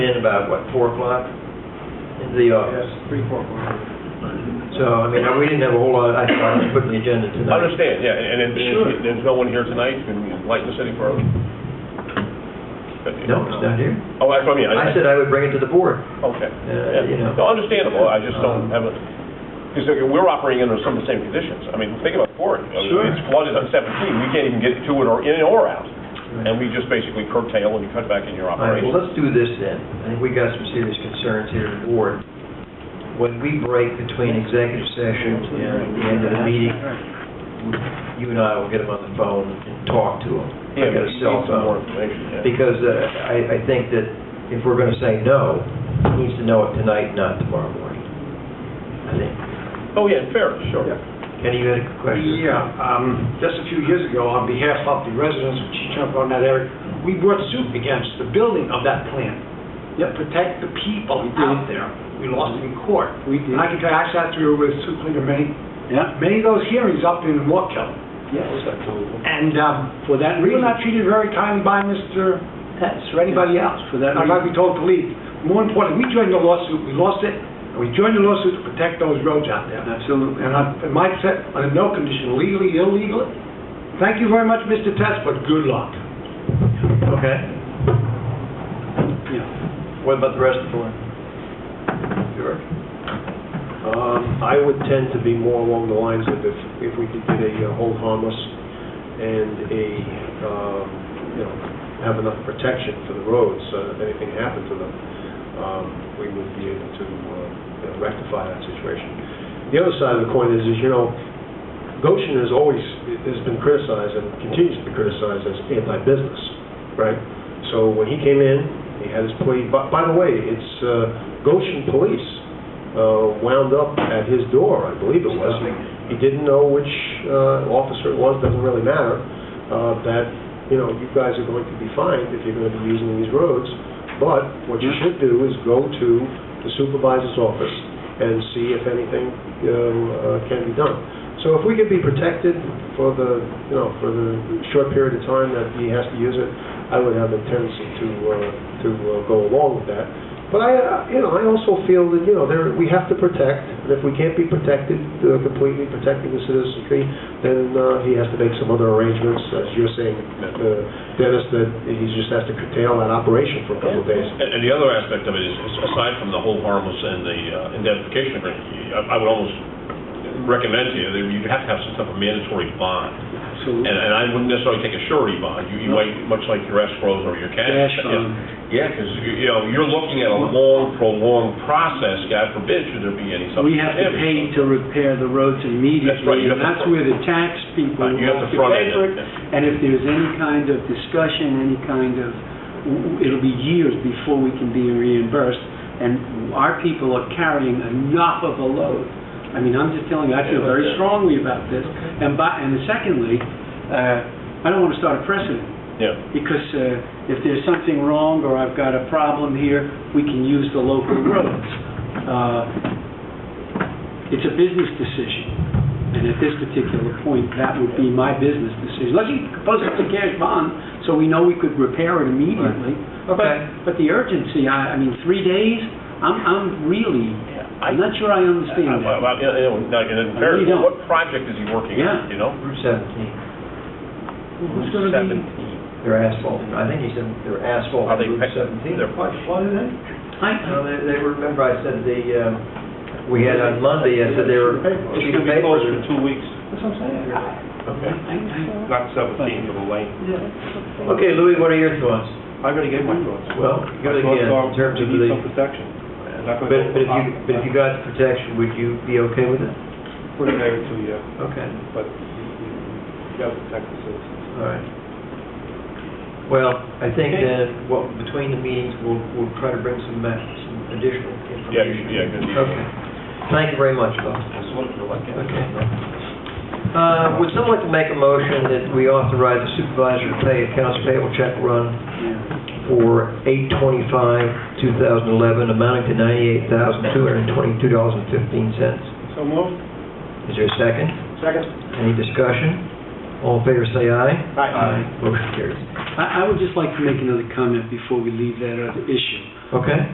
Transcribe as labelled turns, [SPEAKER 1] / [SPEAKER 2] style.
[SPEAKER 1] in about, what, four o'clock into the
[SPEAKER 2] Yes,
[SPEAKER 1] office.
[SPEAKER 2] three, four, five.
[SPEAKER 1] So, I mean, we didn't have a whole lot, I thought, to put in the agenda
[SPEAKER 3] I
[SPEAKER 1] tonight.
[SPEAKER 3] understand, yeah, and and if
[SPEAKER 1] Sure.
[SPEAKER 3] you- there's no one here tonight, you can light the city for...
[SPEAKER 1] No, it's not here.
[SPEAKER 3] Oh, that's what I mean.
[SPEAKER 1] I said I would bring it to the board.
[SPEAKER 3] Okay.
[SPEAKER 1] Uh, you know.
[SPEAKER 3] No, understandable, I just
[SPEAKER 1] Um,
[SPEAKER 3] don't have a, because we're operating under some of the same conditions. I mean, think about Ford. I mean,
[SPEAKER 1] Sure.
[SPEAKER 3] It's flooded on 17, we can't even get to it or in or out, and we just basically curtail and cut back in your
[SPEAKER 1] All right, well,
[SPEAKER 3] operation.
[SPEAKER 1] let's do this then. I think we got some serious concerns here at the board. When we break between executive session and the end of the meeting, you and I will get them on the phone and talk to them.
[SPEAKER 3] Yeah,
[SPEAKER 1] I got
[SPEAKER 3] but
[SPEAKER 1] a
[SPEAKER 3] you
[SPEAKER 1] cell
[SPEAKER 3] need some more
[SPEAKER 1] phone.
[SPEAKER 3] information, yeah.
[SPEAKER 1] Because uh, I, I think that if we're going to say no, he needs to know it tonight, not tomorrow morning. I think.
[SPEAKER 3] Oh, yeah, fair, sure.
[SPEAKER 2] Yeah.
[SPEAKER 1] Kenny, you had a question?
[SPEAKER 2] Yeah, um, just a few years ago, um, on behalf of the residents of Chichunk on that area, we brought suit against the building of that plant to protect the people out there. We lost in court.
[SPEAKER 4] We did.
[SPEAKER 2] And I can tell you, I sat through with Sue Klinger many,
[SPEAKER 4] Yeah.
[SPEAKER 2] many of those hearings up in Waukegan. And um, for that reason, not treated very kindly by Mr. Pence or anybody else.
[SPEAKER 4] For that
[SPEAKER 2] I'd like to be told to leave. More importantly, we joined the lawsuit, we lost it, and we joined the lawsuit to protect those roads out there.
[SPEAKER 4] Absolutely.
[SPEAKER 2] And I, and my set, under no condition, legally, illegally. Thank you very much, Mr. Test, but good luck.
[SPEAKER 1] Okay.
[SPEAKER 4] Yeah.
[SPEAKER 1] What about the rest of the board? Sure.
[SPEAKER 5] Um, I would tend to be more along the lines of if, if we could get a uh, hold harmless and a, um, you know, have enough protection for the roads, so that if anything happened to them, um, we would be able to uh, you know, rectify that situation. The other side of the coin is, is, you know, Goshen has always, has been criticized and continues to be criticized as anti-business, right? So when he came in, he had his plea, by, by the way, it's uh, Goshen Police uh, wound up at his door, I believe it was. He didn't know which uh, officer it was, doesn't really matter, uh, that, you know, you guys are going to be fined if you're going to be using these roads, but what you should do is go to the supervisor's office and see if anything you know, uh, can be done. So if we could be protected for the, you know, for the short period of time that he has to use it, I would have a tendency to, uh, to uh, go along with that. But I, uh, you know, I also feel that, you know, there, we have to protect, and if we can't be protected, uh, completely protecting the citizenry, then uh, he has to make some other arrangements, as you're saying, uh, Dennis, that he just has to curtail that operation for a couple of days.
[SPEAKER 3] And and the other aspect of it is, is aside from the whole harmless and the uh, indemnification agreement, you- I I would almost recommend to you that you have to have some type of mandatory bond. And
[SPEAKER 4] Absolutely.
[SPEAKER 3] and I wouldn't necessarily take a surety bond. You you
[SPEAKER 4] No.
[SPEAKER 3] might, much like your escrows or your cash.
[SPEAKER 4] Cash
[SPEAKER 3] yeah.
[SPEAKER 4] on,
[SPEAKER 3] Yeah, because, you know, you're looking at a long, prolonged process, God forbid, should there be any substance
[SPEAKER 4] we have
[SPEAKER 3] damage.
[SPEAKER 4] to pay to repair the roads
[SPEAKER 3] That's right,
[SPEAKER 4] immediately,
[SPEAKER 3] you have to
[SPEAKER 4] and that's
[SPEAKER 3] front-
[SPEAKER 4] where the tax people
[SPEAKER 3] Right,
[SPEAKER 4] have
[SPEAKER 3] you have
[SPEAKER 4] to
[SPEAKER 3] to front
[SPEAKER 4] pay
[SPEAKER 3] end
[SPEAKER 4] for
[SPEAKER 3] it,
[SPEAKER 4] it. And if there's any kind of discussion, any kind of, it'll be years before we can be reimbursed, and our people are carrying enough of a load. I mean, I'm just telling you, I feel very strongly about this, and by, and secondly, uh, I don't want to start a precedent,
[SPEAKER 3] Yeah.
[SPEAKER 4] because uh, if there's something wrong or I've got a problem here, we can use the local roads. Uh, It's a business decision, and at this particular point, that would be my business decision. Unless you propose it's a cash bond, so we know we could repair it immediately.
[SPEAKER 1] Okay.
[SPEAKER 4] But- But the urgency, I I mean, three days, I'm I'm really,
[SPEAKER 3] I-
[SPEAKER 4] I'm not sure I
[SPEAKER 3] I-
[SPEAKER 4] understand that.
[SPEAKER 3] I- I- Uh, you know, now, and in
[SPEAKER 4] I
[SPEAKER 3] fairness,
[SPEAKER 4] really don't.
[SPEAKER 3] what project is he working
[SPEAKER 4] Yeah.
[SPEAKER 3] on, you know?
[SPEAKER 1] Route seventeen,
[SPEAKER 4] Who's gonna be-
[SPEAKER 3] Seventeen.
[SPEAKER 1] they're asphalt, I think he said they're asphalt
[SPEAKER 3] Are
[SPEAKER 1] on
[SPEAKER 3] they
[SPEAKER 1] Route
[SPEAKER 3] picked-
[SPEAKER 1] seventeen.
[SPEAKER 3] they're-
[SPEAKER 1] What, what are they?
[SPEAKER 4] I-
[SPEAKER 1] No, they, they were- remember I said the, um, we had on Monday, I said they were.
[SPEAKER 5] It's
[SPEAKER 1] sheet of paper.
[SPEAKER 3] two weeks.
[SPEAKER 1] That's what I'm saying.
[SPEAKER 3] Okay.
[SPEAKER 4] I- I-
[SPEAKER 3] Not 17 for the lane.
[SPEAKER 1] Okay, Louis, what are your thoughts?
[SPEAKER 5] I'm going to get my thoughts.
[SPEAKER 1] Well, again, in terms of the,
[SPEAKER 5] protection.
[SPEAKER 1] but, but if you, but if you got protection, would you be okay with it?
[SPEAKER 5] Put it there to you,
[SPEAKER 1] Okay,
[SPEAKER 5] but you got to protect the citizens.
[SPEAKER 1] all right. Well, I think that, well, between the meetings, we'll, we'll try to bring some, ma- some additional
[SPEAKER 3] Yeah,
[SPEAKER 1] information.
[SPEAKER 3] yeah, good.
[SPEAKER 1] Okay. Thank you very much, folks. Okay. Uh, Would someone like to make a motion that we authorize the supervisor to pay accounts payable check run for 8/25/2011 amounting to $98,222.15?
[SPEAKER 5] So moved?
[SPEAKER 1] Is there a second?
[SPEAKER 5] Second.
[SPEAKER 1] Any discussion? All in favor, say aye.
[SPEAKER 5] Aye.
[SPEAKER 1] Motion carries.
[SPEAKER 4] I I would just like to make another comment before we leave that other issue.
[SPEAKER 1] Okay.